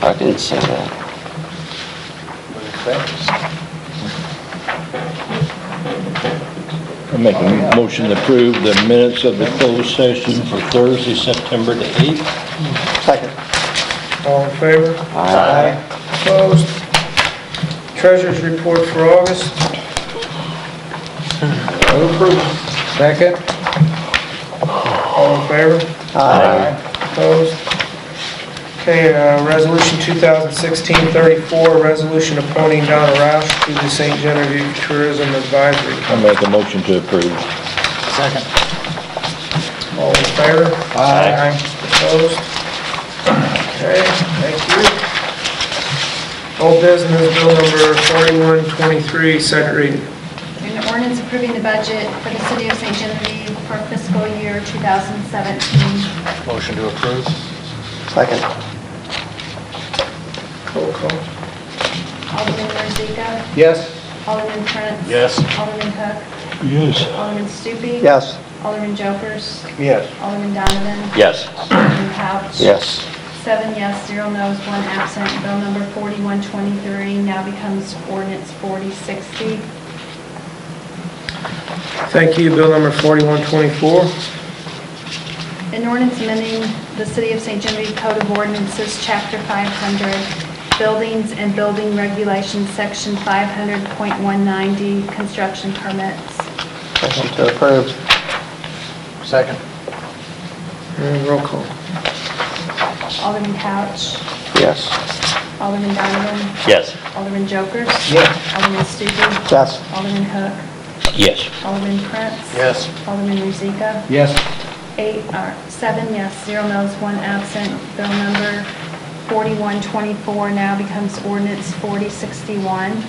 I didn't say that. I make a motion to approve the minutes of the closed session for Thursday, September the 8th. All in favor? Aye. Opposed? Treasurers report for August. Second. All in favor? Aye. Opposed? Okay, uh, Resolution 2016-34, resolution appointing Donna Roush to the St. Genevieve Tourism Advisory Council. I make a motion to approve. All in favor? Aye. Opposed? Okay, thank you. Old business, bill number 4123, second reading. An ordinance approving the budget for the city of St. Genevieve for fiscal year 2017. Motion to approve? Second. Roll call. Alderman Rozika? Yes. Alderman Prince? Yes. Alderman Hook? Yes. Alderman Stupi? Yes. Alderman Jokers? Yes. Alderman Donovan? Yes. Alderman Couch? Yes. Seven yes, zero no's, one absent. Bill number 4123 now becomes ordinance 4060. Thank you, bill number 4124. An ordinance amending the City of St. Genevieve Code of Ordinances, Chapter 500, Buildings and Building Regulations, Section 500.190, Construction Permits. Motion to approve. Second? And roll call. Alderman Couch, Yes. Alderman Donovan, Yes. Alderman Jokers. Yes. Alderman Stupi. Yes. Alderman Hook. Yes. Alderman Prince. Yes. Alderman Rozika. Yes. Eight, or seven yes, zero no's, one absent. Bill number 4124 now becomes ordinance 4061.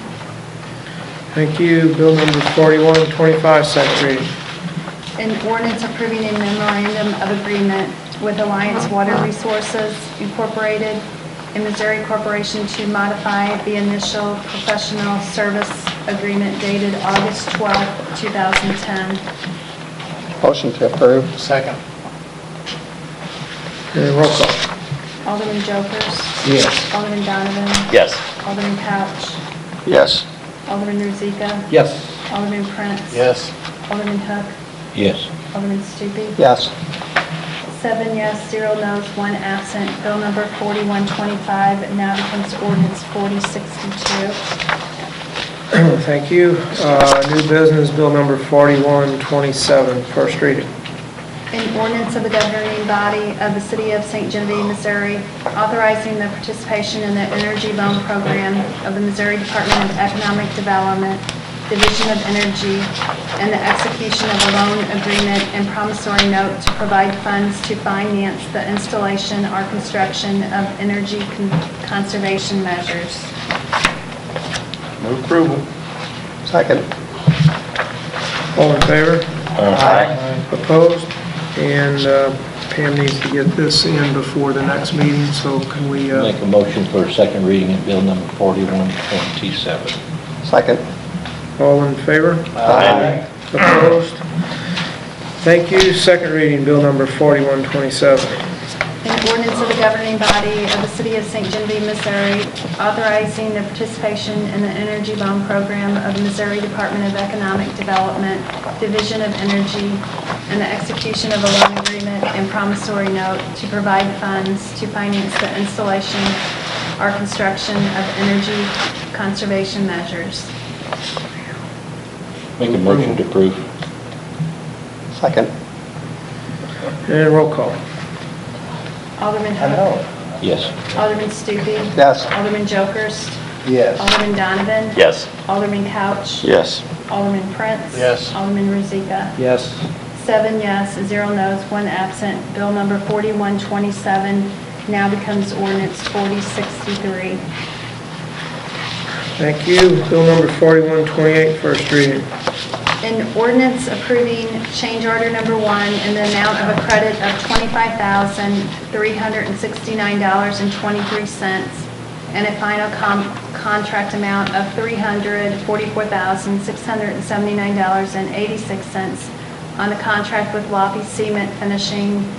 Thank you, bill number 4125, second reading. An ordinance approving a memorandum of agreement with Alliance Water Resources Incorporated and Missouri Corporation to modify the initial professional service agreement dated August 12, 2010. Motion to approve. Second? And roll call. Alderman Jokers. Yes. Alderman Donovan. Yes. Alderman Couch. Yes. Alderman Rozika. Yes. Alderman Prince. Yes. Alderman Hook. Yes. Alderman Stupi. Yes. Seven yes, zero no's, one absent. Bill number 4125 now becomes ordinance 4062. Thank you. Uh, New business, bill number 4127, first reading. An ordinance of the governing body of the city of St. Genevieve, Missouri, authorizing the participation in the energy loan program of the Missouri Department of Economic Development, Division of Energy, and the execution of a loan agreement and promissory note to provide funds to finance the installation or construction of energy con- conservation measures. Move approval? Second. All in favor? Aye. Opposed? And uh, Pam needs to get this in before the next meeting, so can we, uh, Make a motion for a second reading of bill number 4127. Second. all in favor? Opposed? Thank you. Second reading, bill number 4127. An ordinance of the governing body of the city of St. Genevieve, Missouri, authorizing the participation in the energy loan program of the Missouri Department of Economic Development, Division of Energy, and the execution of a loan agreement and promissory note to provide funds to finance the installation or construction of energy conservation measures. Make a motion to approve. Second. And roll call. Alderman Hook. Yes. Alderman Stupi. Yes. Alderman Jokers. Yes. Alderman Donovan. Yes. Alderman Couch. Yes. Alderman Prince. Yes. Alderman Rozika. Yes. Seven yes, zero no's, one absent. Bill number 4127 now becomes ordinance 4063. Thank you. Bill number 4128, first reading. An ordinance approving change order number one in the amount of a credit of $25,369.23 and a final com- contract amount of $344,679.86 on the contract with Lofty Cement Finishing